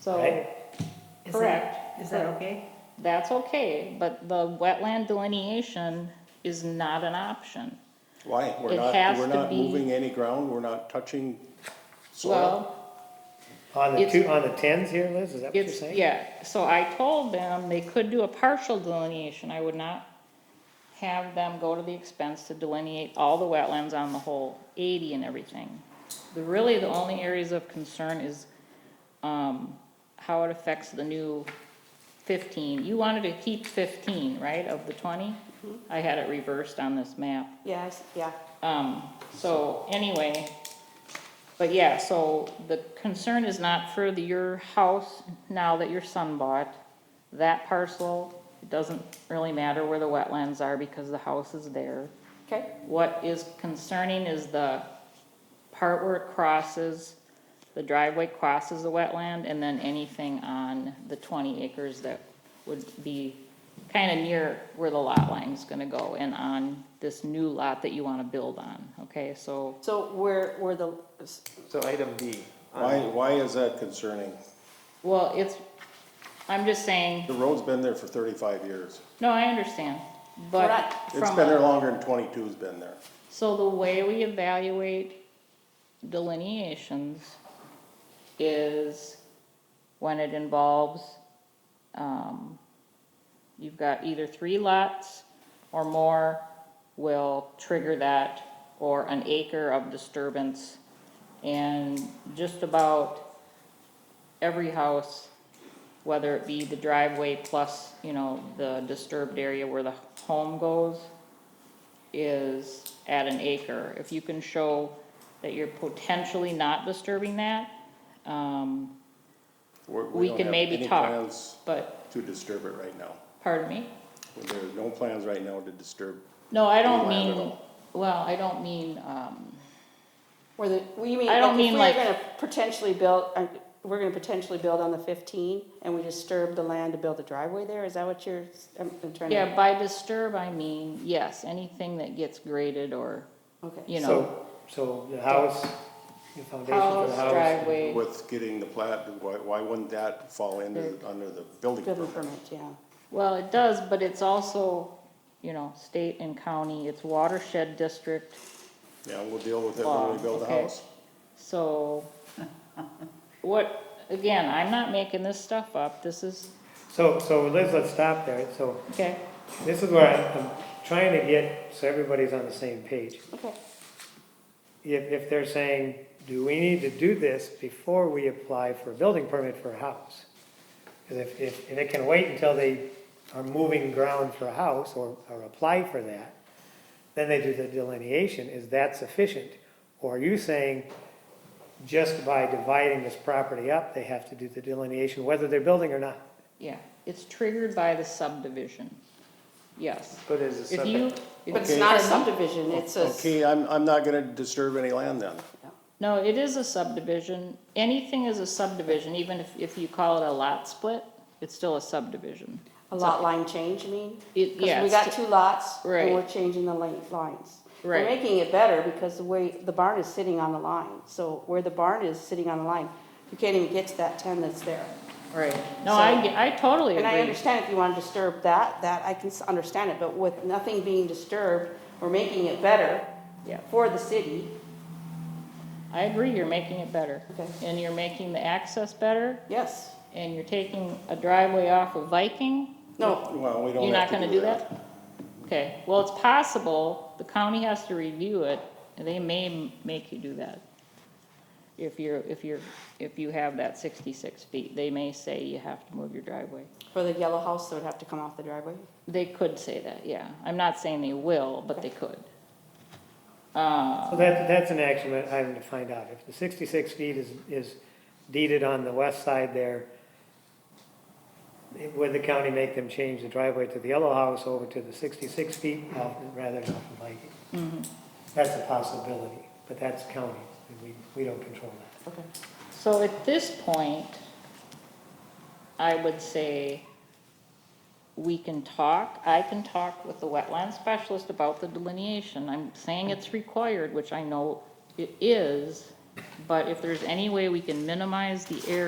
So, Right. Is that- correct. Is that okay? That's okay, but the wetland delineation is not an option. Why? We're It not, has we're to not be- moving any ground, we're not touching soil. Well, On the It's- two, on the tens here, Liz, is that what you're it's, saying? yeah, so I told them they could do a partial delineation. I would not have them go to the expense to delineate all the wetlands on the whole eighty and everything. The, really, the only areas of concern is, um, how it affects the new fifteen. You wanted to keep fifteen, right, of the twenty? Mm-hmm. I had it reversed on this map. Yes, yeah. Um, so anyway, but yeah, so the concern is not for the, your house now that your son bought. That parcel, it doesn't really matter where the wetlands are because the house is there. Okay, What is concerning is the part where it crosses, the driveway crosses the wetland, and then anything on the twenty acres that would be kinda near where the lot line's gonna go and on this new lot that you wanna build on, okay, so. so where, where the, So item D. Why, why is that concerning? Well, it's, I'm just saying, The road's been there for thirty-five years. no, I understand, but Correct. It's from been there a- longer than twenty-two's been there. So the way we evaluate delineations is when it involves, um, you've got either three lots or more will trigger that, or an acre of disturbance. And just about every house, whether it be the driveway plus, you know, the disturbed area where the home goes, is at an acre. If you can show that you're potentially not disturbing that, um, We're- We don't can have maybe any talk. plans but, To disturb it right now. pardon me? There are no plans right now to disturb. No, I don't Land at mean, well, I don't mean, um, where the, well, you mean, I don't like mean if we were like- gonna potentially build, uh, we're gonna potentially build on the fifteen and we disturb the land to build a driveway there, is that what you're, I'm I'm trying to? yeah, by disturb, I mean, yes, anything that gets graded or, Okay, you know, So, so the house, the foundation for the house, house. driveway. With getting the plat, why, why wouldn't that fall into, under the building building permit? permit, yeah. Well, it does, but it's also, you know, state and county, it's watershed district, Yeah, we'll deal with it Law, when we build the okay. house. so. What, again, I'm not making this stuff up, this is, So, so Liz, let's stop there. So okay, this is where I'm, I'm trying to get, so everybody's on the same page. Okay, If, if they're saying, do we need to do this before we apply for a building permit for a house? Because if, if, if it can wait until they are moving ground for a house or, or apply for that, then they do the delineation, is that sufficient? Or are you saying, just by dividing this property up, they have to do the delineation, whether they're building or not? Yeah, it's triggered by the subdivision, yes. But is a If you. subject, but it's Okay. not a subdivision, it's a, Okay, I'm, I'm not gonna disturb any land then. No, it is a subdivision, anything is a subdivision, even if, if you call it a lot split, it's still a subdivision. a lot line change, you mean? It- yeah, Because we it's got t- two lots, Right. and we're changing the lane, lines. We're Right. making it better because the way, the barn is sitting on the line, so where the barn is sitting on the line, you can't even get to that ten that's there. Right. No, I, So- get- I totally And I agree, understand if you wanna disturb that, that, I can s- understand it, but with nothing being disturbed, we're making it better yeah, for the city, I agree, you're making it better. Okay. And you're making the access better, yes, and you're taking a driveway off of Viking, no, Well, we You're don't not have to gonna do that? Okay, well, it's possible, the county has to review it, and they may m- make you do that. If you're, if you're, if you have that sixty-six feet, they may say you have to move your driveway. for the yellow house, that would have to come off the driveway. They could say that, yeah, I'm not saying they will, but they could. Uh, So that, that's an action that I'm to find out. If the 66 feet is, is deeded on the west side there, would the county make them change the driveway to the yellow house over to the 66 feet off- rather than off of Viking? That's a possibility, but that's county, and we, we don't control that. Okay. so at this point, I would say we can talk, I can talk with the wetland specialist about the delineation. I'm saying it's required, which I know it is, but if there's any way we can minimize the area.